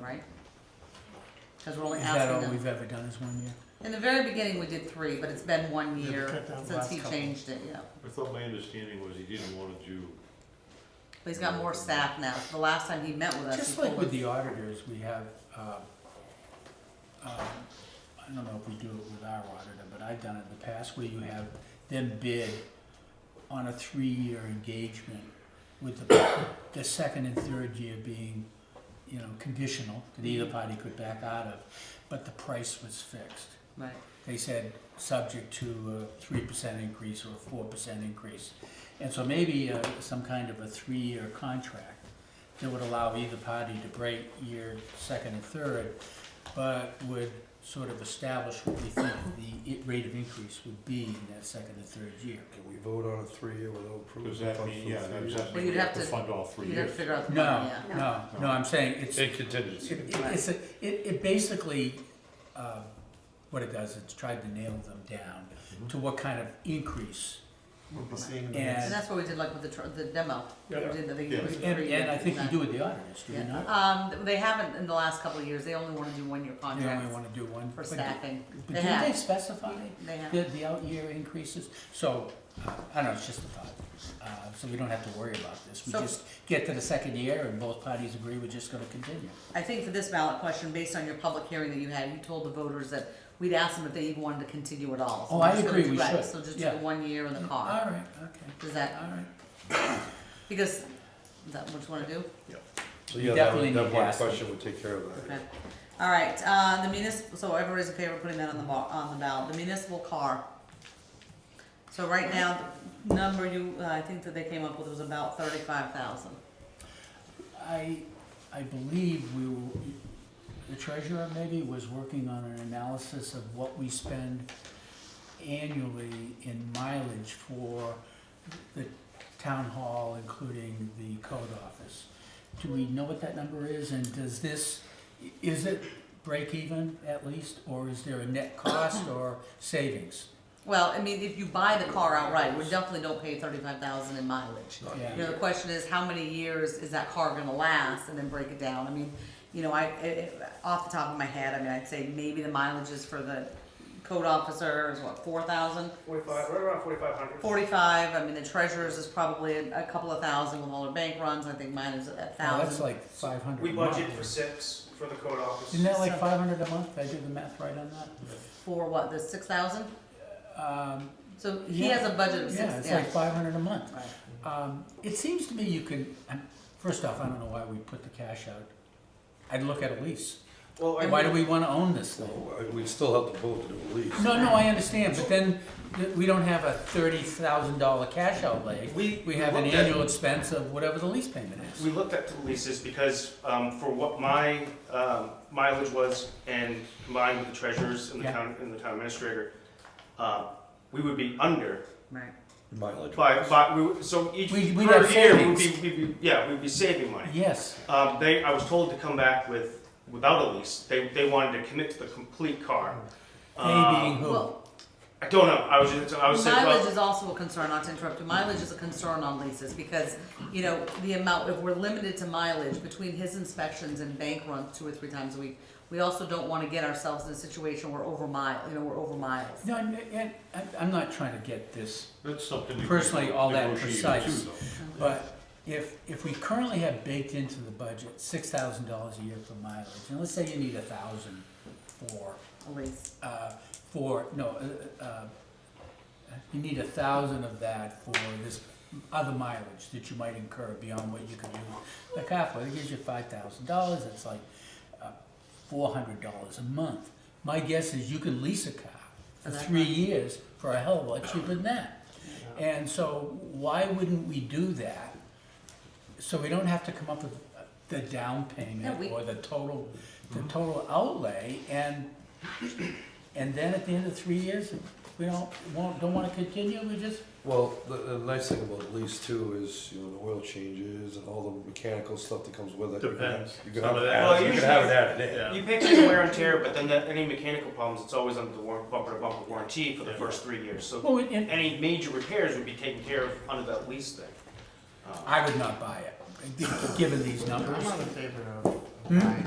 right? Cause we're only Is that asking all them. we've ever done is one year? In the very beginning, we did three, but it's been one Yeah, we year cut down the since last he couple. changed it, yeah. I thought my understanding was he didn't want to do, But he's got more staff now. The last time he met with us, he Just told like with us- the auditors, we have, uh, um, I don't know if we do it with our auditor, but I've done it in the past where you have them bid on a three-year engagement with the, the second and third year being, you know, conditional, that either party could back out of, but the price was fixed. Right, They said, subject to a three percent increase or a four percent increase. And so maybe uh, some kind of a three-year contract that would allow either party to break year second and third, but would sort of establish what we think the i- rate of increase would be in that second and third year. Can we vote on a three-year without approving? does that mean, yeah, that does that Well, mean you'd we have have to to- fund all three you'd have years? to figure out the money, No, yeah. no, no, I'm saying it's, it, In contingency. it's, a- it, it basically, uh, what it does, it's tried to nail them down to what kind of increase. We'll be seeing the And And that's what we did like with the, tr- the demo. We Yeah. did, I think. Yeah. it was And, three and I years, think you and do with the auditors, do you that- not? Um, they haven't in the last couple of years. They only wanna do one-year You only contracts wanna do one. Oh, for but- staffing. But They didn't they have, specify they have. the, the out-year increases? So, uh, I don't know, it's just a thought. Uh, so we don't have to worry about this. We So- just get to the second year and both parties agree we're just gonna continue. I think for this ballot question, based on your public hearing that you had, you told the voters that we'd ask them if they even wanted to continue at all. So Oh, we're I just gonna agree, do- we right, should. So just do Yeah. the one year in the car. All right, okay, Does that, all right. because, is that what you wanna do? So You yeah, that definitely one, that need to one ask them. question would take care of that. Okay. All right, uh, the municipal, so everybody's in favor of putting that on the bar, on the ballot, the municipal car. So right now, the number you, uh, I think that they came up with was about thirty-five thousand. I, I believe we will, the treasurer maybe was working on an analysis of what we spend annually in mileage for the town hall, including the code office. Do we know what that number is, and does this, is it break even at least, or is there a net cost or savings? Well, I mean, if you buy the car outright, we definitely don't pay thirty-five thousand in mileage. You know, the question is, how many years is that car gonna last, and then break it down, I mean, you know, I, i i- off the top of my head, I mean, I'd say maybe the mileages for the code officer is what, four thousand? Forty-five, right around forty-five hundred. Forty-five, I mean, the treasurer's is probably a, a couple of thousand with all the bank runs, I think mine is a Now, Oh, that's thousand. like five hundred We a month. budget for six for the code office. Isn't that like five hundred a month? Did I do the math right on For what, the six thousand? that? Um, So he Yeah. has a budget of Yeah, six, it's yeah. like five hundred a month. Right. Um, it seems to me you can, um, first off, I don't know why we put the cash out. I'd look at a lease. Well, I Why do we wanna own this thing? So uh, we'd still have to vote to do a lease. No, no, I understand, but then th- we don't have a thirty thousand dollar cash outlay. We- We have an we looked at- annual expense of whatever the lease payment is. we looked at two leases because, um, for what my, um, mileage was and combined with the treasurers and the Yeah. town, and the town administrator, uh, we would be under Right. Mileage. by, by, we, would- so each, per We- we'd have year, we would be, savings. we'd be, yeah, we'd be saving money. Yes, Um, they, I was told to come back with, without a lease. They, they wanted to commit to the complete car. they being Um, who? Well, I don't know. I was just, I was saying, well. mileage is also a concern, not to interrupt you, mileage is a concern on leases, because, you know, the amount, if we're limited to mileage, between his inspections and bank runs two or three times a week, we also don't wanna get ourselves in a situation where over mile, you know, we're over miles. No, I'm, I'm- I'm not trying to get this That's something. we Personally, all that negotiate precise. too, though. But if, if we currently have baked into the budget six thousand dollars a year for mileage, and let's say you need a thousand for, A lease, uh, for, no, uh, uh, you need a thousand of that for this other mileage that you might incur beyond what you can use the car for. It gives you five thousand dollars, it's like uh, four hundred dollars a month. My guess is you can lease a car for For that three much. years for a hell of a lot cheaper than that. And so why wouldn't we do that? So we don't have to come up with uh, the down Yeah, payment we- or the total, the total outlay and, and then at the end of three years, we don't, won't, don't wanna continue, we just, Well, the, the nice thing about lease too is, you know, the oil changes and all the mechanical stuff that comes with it. You can have- Depends. You can Some have of it that- Well, added, you can usually- have it added in. You pay for the wear and tear, but then that, any mechanical problems, it's always under the war, bumper to bumper warranty for the first three years. So well, and any major repairs would be taken care of under that lease thing. Uh, I would not buy it, given these numbers. I'm not in favor of buying, I'm